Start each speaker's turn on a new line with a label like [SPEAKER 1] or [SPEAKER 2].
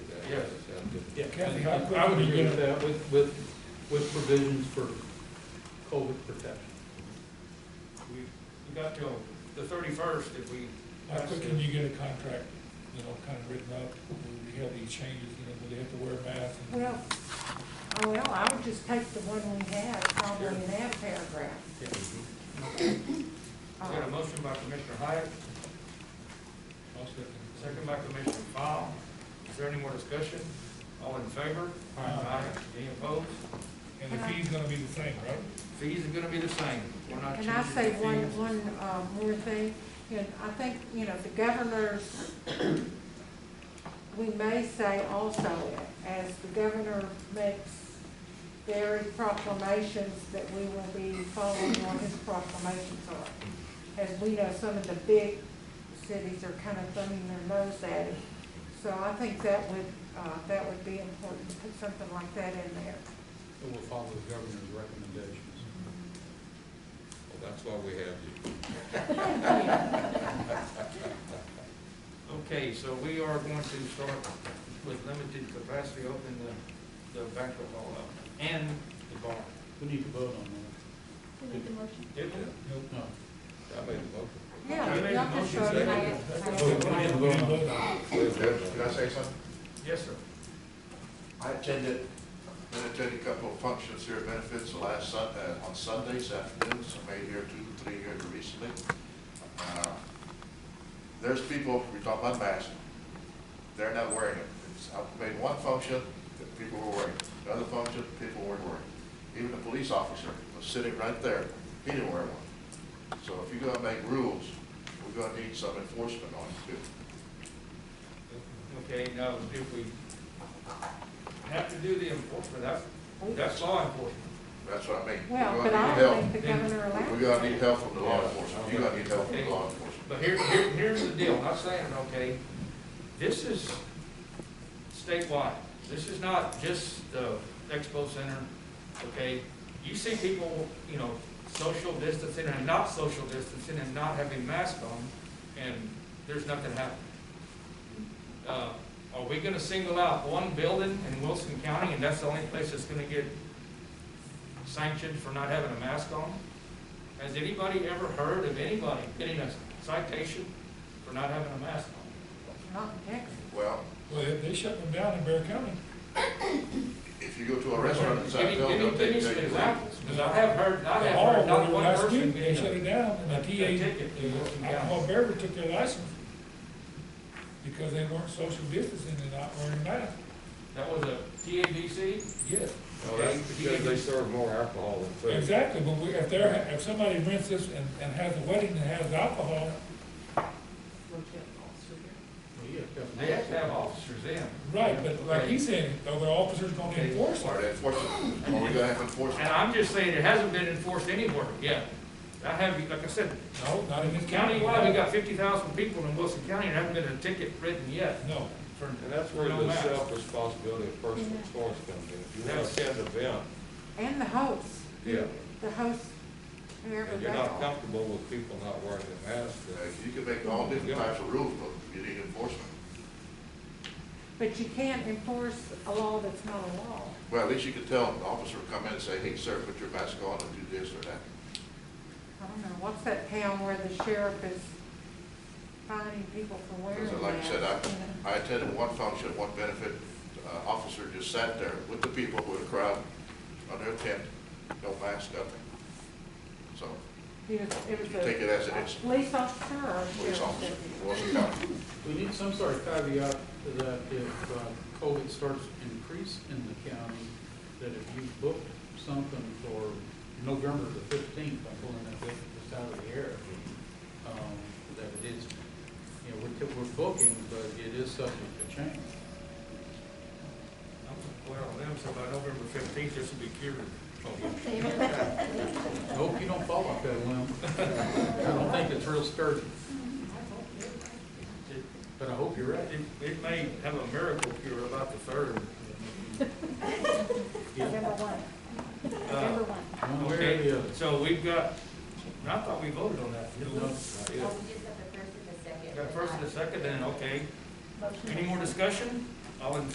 [SPEAKER 1] Yeah,
[SPEAKER 2] Kathy, how
[SPEAKER 1] I I would
[SPEAKER 2] quick do you-
[SPEAKER 1] agree with that, with, with, with provisions for COVID protection.
[SPEAKER 3] We, we got till the thirty-first if we.
[SPEAKER 2] How quick can you get a contract, you know, kind of written up, will we have these changes, you know, will they have to wear masks? and-
[SPEAKER 4] Well, oh, well, I would just take the one we had, probably in that paragraph.
[SPEAKER 1] Yeah.
[SPEAKER 3] We got a motion by Commissioner Hyatt,
[SPEAKER 2] I'll second.
[SPEAKER 3] second by Commissioner Fowle. Is there any more discussion? All in favor?
[SPEAKER 2] Aye.
[SPEAKER 3] Any opposed?
[SPEAKER 2] And the fee's gonna be the same, right?
[SPEAKER 3] Fees are gonna be the same. We're not
[SPEAKER 4] Can I
[SPEAKER 3] changing
[SPEAKER 4] say
[SPEAKER 3] the
[SPEAKER 4] one,
[SPEAKER 3] fees.
[SPEAKER 4] one, uh, more thing? And I think, you know, the governor's, we may say also, as the governor makes very proclamations that we will be following what his proclamations are. As we know, some of the big cities are kind of thumbing their nose at it. So I think that would, uh, that would be important, to put something like that in there.
[SPEAKER 1] And we'll follow the governor's recommendations.
[SPEAKER 5] Well, that's why we have you.
[SPEAKER 3] Okay, so we are going to start with limited capacity, open the, the banquet hall up and the bar.
[SPEAKER 1] We need to vote on
[SPEAKER 6] We need the motion.
[SPEAKER 3] Did we?
[SPEAKER 2] Nope.
[SPEAKER 1] that. No.
[SPEAKER 5] I made the motion.
[SPEAKER 4] Yeah,
[SPEAKER 3] Okay.
[SPEAKER 4] y'all can show it.
[SPEAKER 5] Second.
[SPEAKER 1] Oh, we need to vote on it.
[SPEAKER 7] Can I say something?
[SPEAKER 3] Yes, sir.
[SPEAKER 7] I attended, been attending a couple of functions here at Benefits the last Sun, uh, on Sundays afternoons, I made here two, three here recently. Uh, There's people, we talk about masks, they're not wearing it. It's- I made one function that people were wearing, it. the other function, people weren't wearing. it. Even the police officer was sitting right there, he didn't wear one. So if you're gonna make rules, we're gonna need some enforcement on it too.
[SPEAKER 3] Okay, now, if we have to do the enforcement, that's,
[SPEAKER 4] Oh.
[SPEAKER 3] that's law enforcement.
[SPEAKER 7] That's what I mean. We're
[SPEAKER 4] Well, but
[SPEAKER 7] gonna need
[SPEAKER 4] I
[SPEAKER 7] help.
[SPEAKER 4] don't think the governor
[SPEAKER 7] We're
[SPEAKER 4] allowed.
[SPEAKER 7] gonna need help from the law enforcement, you're gonna need help from the law enforcement.
[SPEAKER 3] But here, here, here's the deal, I'm not saying, okay, this is statewide, this is not just the expo center, okay? You see people, you know, social distancing and not social distancing and not having masks on, and there's nothing happening. Uh, are we gonna single out one building in Wilson County, and that's the only place that's gonna get sanctioned for not having a mask on? Has anybody ever heard of anybody getting a citation for not having a mask on?
[SPEAKER 4] Not in Texas.
[SPEAKER 7] Well,
[SPEAKER 2] Well, they- they shut them down in Bear County.
[SPEAKER 7] if you go to a restaurant in
[SPEAKER 3] Give me-
[SPEAKER 7] Southville,
[SPEAKER 3] give
[SPEAKER 7] they'll
[SPEAKER 3] me-
[SPEAKER 7] take
[SPEAKER 3] Give me
[SPEAKER 7] take
[SPEAKER 3] some
[SPEAKER 7] you
[SPEAKER 3] examples, because I have heard, I have heard
[SPEAKER 2] The hall,
[SPEAKER 3] Oh, not
[SPEAKER 2] where
[SPEAKER 3] one
[SPEAKER 2] last
[SPEAKER 3] person
[SPEAKER 2] week, They shut it
[SPEAKER 3] getting a.
[SPEAKER 2] down, and
[SPEAKER 3] a
[SPEAKER 2] the TA,
[SPEAKER 3] ticket in Wilson County.
[SPEAKER 2] alcohol beverage took their license because they weren't social distancing and not wearing masks.
[SPEAKER 3] That was a TABC?
[SPEAKER 2] Yes.
[SPEAKER 5] Well, that's because they serve more alcohol than food.
[SPEAKER 2] Exactly, but we, if they're, if somebody rents this and, and has a wedding and has alcohol,
[SPEAKER 1] Well, yeah, Kevin.
[SPEAKER 3] They have to have officers in.
[SPEAKER 2] right, but like he's saying, are the officers gonna
[SPEAKER 3] Okay.
[SPEAKER 2] enforce
[SPEAKER 7] Or
[SPEAKER 2] it?
[SPEAKER 7] they enforce it, or we gonna have
[SPEAKER 3] And
[SPEAKER 7] enforcement.
[SPEAKER 3] I'm just saying, it hasn't been enforced anywhere yet. I have, like I said,
[SPEAKER 2] No, not in this county.
[SPEAKER 3] countywide, we got fifty thousand people in Wilson County, and haven't been a ticket written yet
[SPEAKER 2] No,
[SPEAKER 3] for
[SPEAKER 5] And that's where
[SPEAKER 3] no
[SPEAKER 5] the
[SPEAKER 3] mask.
[SPEAKER 5] self-responsibility of personal choice comes in. If you have a sad event,
[SPEAKER 4] And the host.
[SPEAKER 5] Yeah.
[SPEAKER 4] The host, whoever
[SPEAKER 5] and
[SPEAKER 4] they
[SPEAKER 5] you're not
[SPEAKER 4] are.
[SPEAKER 5] comfortable with people not wearing their masks,
[SPEAKER 7] Uh,
[SPEAKER 5] then
[SPEAKER 7] You can make all different types of rules, but you need enforcement.
[SPEAKER 4] But you can't enforce a law that's not a law.
[SPEAKER 7] Well, at least you can tell the officer, come in and say, hey, sir, put your mask on and do this or that.
[SPEAKER 4] I don't know, what's that town where the sheriff is finding people for wearing
[SPEAKER 7] Because
[SPEAKER 4] masks?
[SPEAKER 7] like I said,
[SPEAKER 4] you
[SPEAKER 7] I, I attended one function, one benefit, uh, officer just sat there with the people, with the crowd, under a tent, no mask, nothing. So,
[SPEAKER 4] know? He was- It was
[SPEAKER 7] take
[SPEAKER 4] a
[SPEAKER 7] it as it is.
[SPEAKER 4] police officer or a
[SPEAKER 7] police
[SPEAKER 4] sheriff?
[SPEAKER 7] officer,
[SPEAKER 4] deputy?
[SPEAKER 7] Wilson County.
[SPEAKER 1] We need some sort of caveat that if uh, COVID starts to increase in the county, that if you booked something for November the fifteenth, I'm pulling that date just out of the air, um, that it is, you know, we're, t- we're booking, but it is subject to change.
[SPEAKER 3] Well, them, so by November fifteenth, this will be cured.
[SPEAKER 1] I hope you don't fall off that limb. I don't think it's real sturdy,
[SPEAKER 3] It-
[SPEAKER 1] but I hope you're right.
[SPEAKER 3] It, it may have a miracle cure about the third.
[SPEAKER 1] Yeah.
[SPEAKER 6] November one,
[SPEAKER 3] Uh,
[SPEAKER 6] November one.
[SPEAKER 1] One way or the
[SPEAKER 3] Okay,
[SPEAKER 1] other.
[SPEAKER 3] so we've got, I thought we voted on that. didn't we?
[SPEAKER 1] No.
[SPEAKER 3] Yeah.
[SPEAKER 8] Oh, we just got the first and the second.
[SPEAKER 3] Got
[SPEAKER 8] but
[SPEAKER 3] first and
[SPEAKER 8] not-
[SPEAKER 3] a second, then, okay.
[SPEAKER 6] Motion.
[SPEAKER 3] Any more discussion? All in